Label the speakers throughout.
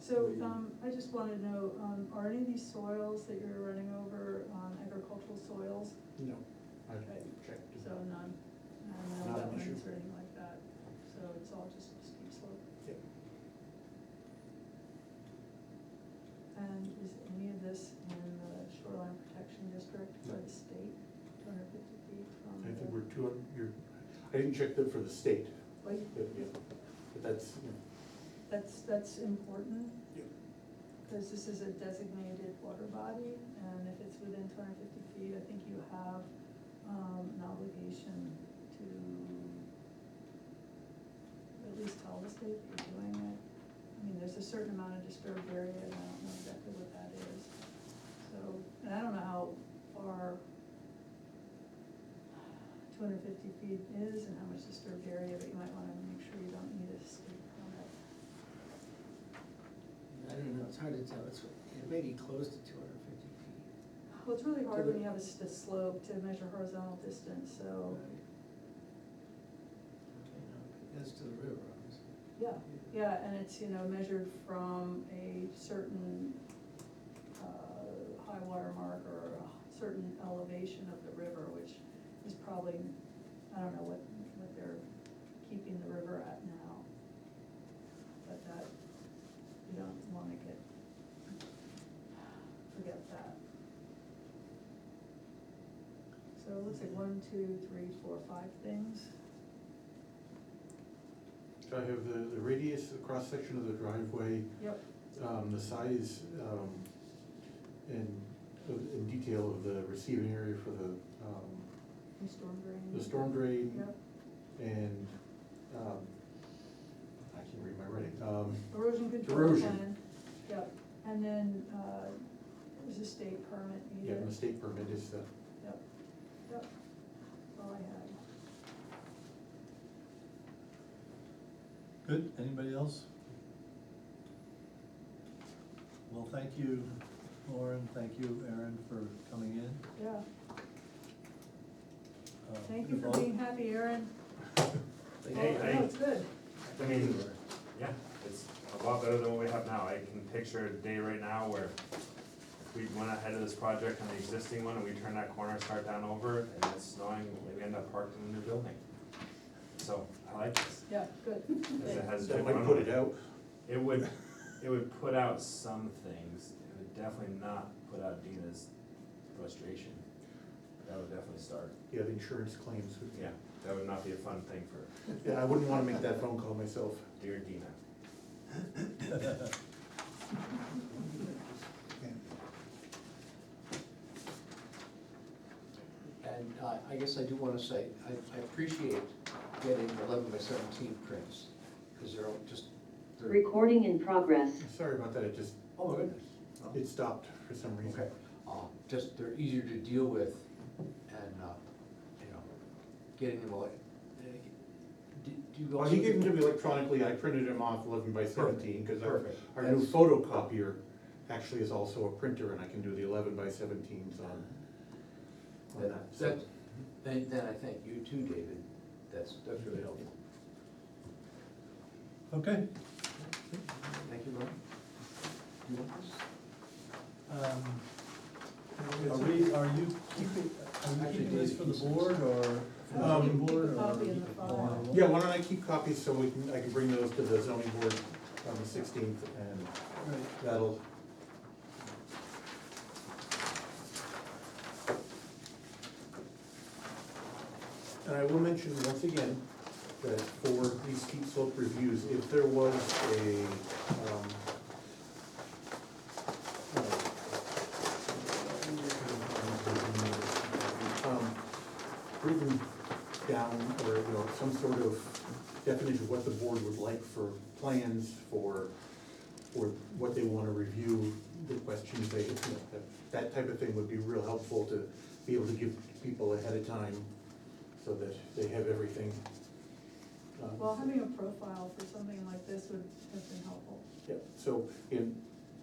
Speaker 1: So, um, I just wanna know, um, are any of these soils that you're running over, um, agricultural soils?
Speaker 2: No, I
Speaker 1: Okay.
Speaker 2: checked.
Speaker 1: So none, none
Speaker 2: Mm-hmm. Not
Speaker 1: of
Speaker 2: an issue.
Speaker 1: wetlands or anything like that, so it's all just steep slope.
Speaker 2: Yeah.
Speaker 1: And is any of this in the shoreline protection district for
Speaker 2: No.
Speaker 1: the state, two hundred fifty feet from
Speaker 2: I
Speaker 1: the?
Speaker 2: think we're two, you're, I didn't check that for the state,
Speaker 1: Wait,
Speaker 2: but, yeah, but that's, you know,
Speaker 1: That's, that's important,
Speaker 2: yeah.
Speaker 1: because this is a designated water body, and if it's within two hundred fifty feet, I think you have, um, an obligation to at least tell the state that you're doing it. I mean, there's a certain amount of disturbed area, and I don't know exactly what that is, so, and I don't know how far two hundred fifty feet is and how much disturbed area, but you might wanna make sure you don't need a state permit.
Speaker 3: I don't know, it's hard to tell, it's, it may be close to two hundred and fifty feet.
Speaker 1: Well, it's really hard
Speaker 3: To the-
Speaker 1: when you have a s- a slope to measure horizontal distance, so,
Speaker 3: Right. Okay, no, That's to the river, obviously.
Speaker 1: yeah, yeah, and it's, you know, measured from a certain, uh, high water mark or a certain elevation of the river, which is probably, I don't know what, what they're keeping the river at now. But that, you don't wanna get, forget that. So it looks like one, two, three, four, five things.
Speaker 2: So I have the, the radius, the cross-section of the driveway,
Speaker 1: Yep.
Speaker 2: um, the size, um, and, and detail of the receiving area for the, um,
Speaker 1: And storm drain.
Speaker 2: the storm drain.
Speaker 1: Yep.
Speaker 2: And, um, I can't read my writing, um.
Speaker 1: Erosion control
Speaker 2: Erosion.
Speaker 1: plan, yep, and then, uh, there's a state permit
Speaker 2: Yeah,
Speaker 1: needed.
Speaker 2: the state permit uh, is the,
Speaker 1: Yep, yep, that's all I had.
Speaker 4: Good, anybody else? Well, thank you, Lauren, thank you, Aaron, for coming in.
Speaker 1: Yeah,
Speaker 4: Uh,
Speaker 1: thank you for
Speaker 4: involved-
Speaker 1: being happy, Aaron.
Speaker 3: Like,
Speaker 5: Hey,
Speaker 1: Oh,
Speaker 5: I-
Speaker 1: No, it's good.
Speaker 5: I mean, yeah, it's a lot better than what we have now. I can picture a day right now where if we went ahead of this project on the existing one and we turn that corner, start down over, and it's snowing, we end up parked in a new building. So I like this,
Speaker 1: Yeah, good.
Speaker 5: because it has.
Speaker 2: that
Speaker 5: good
Speaker 2: might put
Speaker 5: runway.
Speaker 2: it out.
Speaker 5: It would, it would put out some things, it would definitely not put out Dina's frustration. That would definitely start,
Speaker 2: Yeah, the insurance claims. would-
Speaker 5: yeah, that would not be a fun thing for
Speaker 2: Yeah, I wouldn't wanna make that phone call myself.
Speaker 5: dear Dina.
Speaker 6: And I, I guess I do wanna say, I, I appreciate getting eleven by seventeen prints, cause they're all just, they're,
Speaker 7: Recording in progress.
Speaker 2: Sorry about that, it just,
Speaker 6: oh, my goodness. Oh,
Speaker 2: it stopped for some reason.
Speaker 6: Okay, uh, just, they're easier to deal with and, uh, you know, getting them all. eh, Do, do you
Speaker 2: Well,
Speaker 6: also?
Speaker 2: he gave them to me electronically, I printed them off eleven by seventeen, cause our,
Speaker 6: Perfect.
Speaker 2: our new
Speaker 6: That's-
Speaker 2: photocopier actually is also a printer, and I can do the eleven by seventeens on, on that.
Speaker 6: That,
Speaker 2: so-
Speaker 6: that, then, then I thank you too, David, that's, that's really helpful.
Speaker 4: Okay,
Speaker 6: Thank you, Mark. Do you want this?
Speaker 4: um, are we, are you keeping, are you
Speaker 6: Actually,
Speaker 4: keeping this
Speaker 6: Dave
Speaker 4: for the
Speaker 6: keeps this.
Speaker 4: board or for the
Speaker 2: Um,
Speaker 4: zoning board
Speaker 1: Keep a
Speaker 4: or?
Speaker 1: copy in the file.
Speaker 4: or-
Speaker 2: Yeah, why don't I keep copies so we can, I can bring those to the zoning board on the sixteenth, and
Speaker 4: Right.
Speaker 2: that'll, And I will mention once again that for these steep slope reviews, if there was a, um, um, written down or, you know, some sort of definition of what the board would like for plans, for, for what they wanna review, the questions they, you know, that, that type of thing would be real helpful to be able to give people ahead of time so that they have everything. um,
Speaker 1: Well, having a profile for something like this would have been helpful.
Speaker 2: Yeah, so in,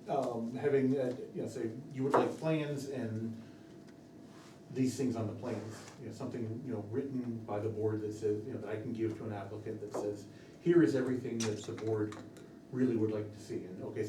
Speaker 2: um, having, uh, you know, say, you would like plans and these things on the plans, you know, something, you know, written by the board that says, you know, that I can give to an applicant that says, here is everything that the board really would like to see, and okay,